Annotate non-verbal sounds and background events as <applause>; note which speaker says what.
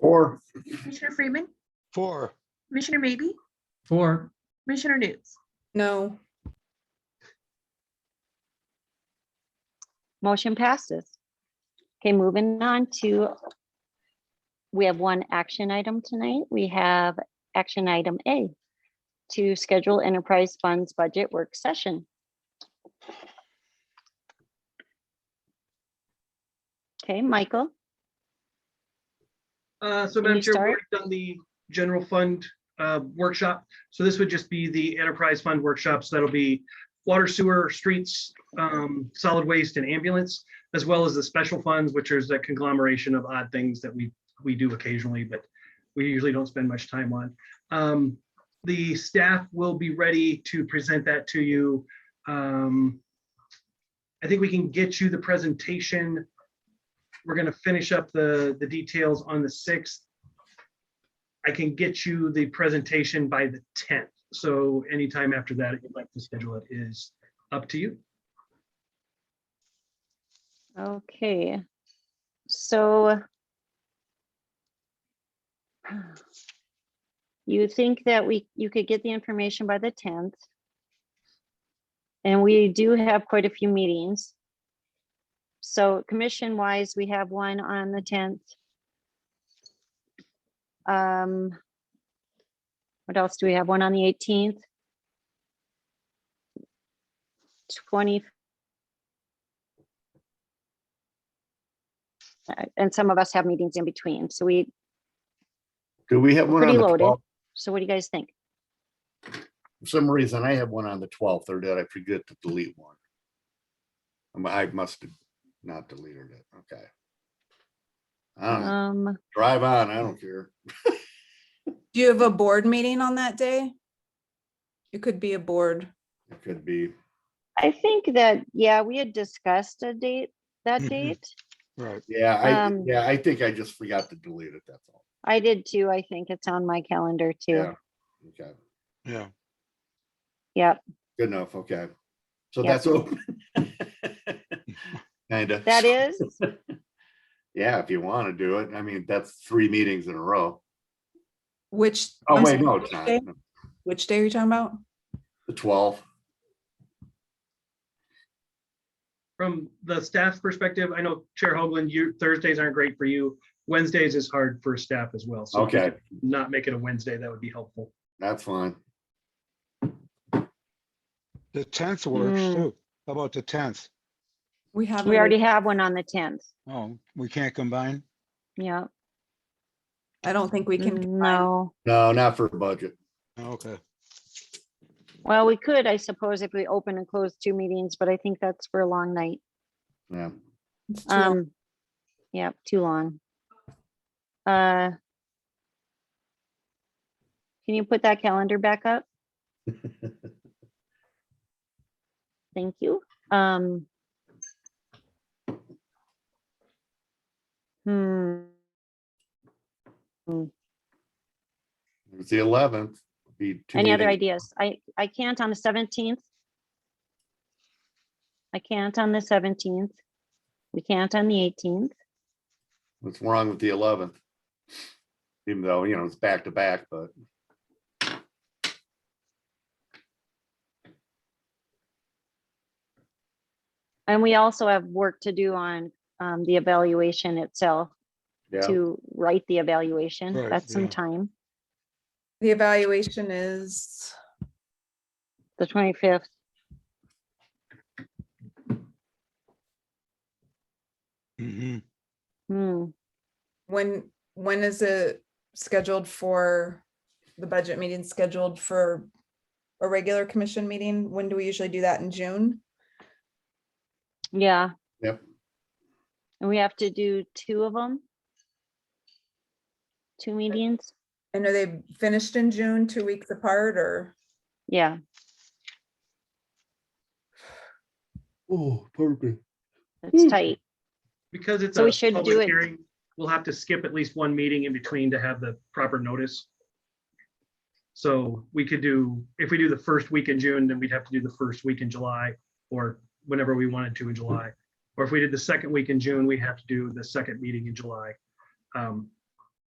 Speaker 1: Four.
Speaker 2: Commissioner Freeman,
Speaker 3: Four.
Speaker 2: Commissioner Maybe,
Speaker 4: Four.
Speaker 2: Commissioner Nudes.
Speaker 5: No.
Speaker 6: Motion passes. Okay, moving on to, we have one action item tonight. We have action item A to schedule enterprise funds budget work session. Okay, Michael,
Speaker 7: Uh, So
Speaker 6: Can
Speaker 7: Madam
Speaker 6: you
Speaker 7: Chair, we've
Speaker 6: start?
Speaker 7: already done the general fund uh, workshop. So this would just be the enterprise fund workshops. That'll be water, sewer, streets, um, solid waste and ambulance, as well as the special funds, which is a conglomeration of odd things that we, we do occasionally, but we usually don't spend much time on. Um, The staff will be ready to present that to you. Um, I think we can get you the presentation we're gonna finish up the, the details on the sixth. I can get you the presentation by the tenth, so anytime after that, if you'd like to schedule it is up to you.
Speaker 6: okay. So you think that we, you could get the information by the tenth? And we do have quite a few meetings. So commission wise, we have one on the tenth. Um, what else do we have? One on the eighteenth? Twenty. Uh, And some of us have meetings in between, so we,
Speaker 1: Do we have one on
Speaker 6: Pretty
Speaker 1: the
Speaker 6: loaded.
Speaker 1: 12th?
Speaker 6: so what do you guys think?
Speaker 1: For some reason, I have one on the twelfth, or did I forget to delete one? Um, I must have not deleted it, okay. I don't know.
Speaker 6: Um,
Speaker 1: drive on, I don't care.
Speaker 5: Do you have a board meeting on that day? It could be a board.
Speaker 1: It could be,
Speaker 6: I think that, yeah, we had discussed a date, that
Speaker 3: Mhm.
Speaker 6: date.
Speaker 3: Right.
Speaker 1: yeah, I,
Speaker 6: Um,
Speaker 1: yeah, I think I just forgot to delete it, that's all.
Speaker 6: I did too. I think it's on my calendar too.
Speaker 1: Yeah. Okay,
Speaker 3: Yeah.
Speaker 6: Yep,
Speaker 1: good enough, okay. So
Speaker 6: Yeah.
Speaker 1: that's open. <laughs> Kinda.
Speaker 6: that is.
Speaker 1: Yeah, if you want to do it, I mean, that's three meetings in a row.
Speaker 5: Which?
Speaker 1: Oh,
Speaker 5: I'm
Speaker 1: wait,
Speaker 5: sorry,
Speaker 1: no,
Speaker 5: which
Speaker 1: it's not,
Speaker 5: day- Which day are you talking about?
Speaker 1: the twelfth.
Speaker 7: From the staff's perspective, I know Chair Hoagland, you, Thursdays aren't great for you. Wednesdays is hard for staff as well, so. if you
Speaker 1: Okay,
Speaker 7: could Not make it a Wednesday, that would be helpful.
Speaker 1: that's fine.
Speaker 3: The tenth works
Speaker 6: Mm.
Speaker 3: too. How about the tenth?
Speaker 5: We have.
Speaker 6: <laughs> We
Speaker 5: it-
Speaker 6: already have one on the tenth.
Speaker 3: Oh, we can't combine?
Speaker 6: Yeah,
Speaker 5: I don't think we
Speaker 6: Mm,
Speaker 5: can. combine.
Speaker 6: no.
Speaker 1: No, not for budget.
Speaker 3: Oh, Okay.
Speaker 6: Well, we could, I suppose, if we open and close two meetings, but I think that's for a long night.
Speaker 1: Yeah.
Speaker 5: It's too long.
Speaker 6: Um, yeah, too long. Uh. Can you put that calendar back
Speaker 5: <laughs>
Speaker 6: up? Thank you. Um. Hmm,
Speaker 1: It's the eleventh.
Speaker 6: any other ideas? I, I can't on the seventeenth. I can't on the seventeenth. We can't on the eighteenth.
Speaker 1: What's wrong with the eleventh? Even though, you know, it's back to back, but
Speaker 6: And we also have work to do on, um, the evaluation itself.
Speaker 1: yeah,
Speaker 6: to write the evaluation.
Speaker 3: Right,
Speaker 6: That's some
Speaker 3: yeah.
Speaker 6: time,
Speaker 5: The evaluation is,
Speaker 6: the twenty-fifth.
Speaker 3: Mm-hmm.
Speaker 6: Hmm,
Speaker 5: when, when is it scheduled for? The budget meeting scheduled for a regular commission meeting? When do we usually do that in June?
Speaker 6: yeah.
Speaker 1: Yep.
Speaker 6: And we have to do two of them? Two meetings?
Speaker 5: And are they finished in June, two weeks apart or?
Speaker 6: Yeah,
Speaker 1: Oh, Hmm. perfect.
Speaker 6: it's tight.
Speaker 7: Because it's
Speaker 6: So we
Speaker 7: a
Speaker 6: should do
Speaker 7: public
Speaker 6: it-
Speaker 7: hearing, we'll have to skip at least one meeting in between to have the proper notice. So we could do, if we do the first week in June, then we'd have to do the first week in July or whenever we wanted to in July. Or if we did the second week in June, we'd have to do the second meeting in July. Um,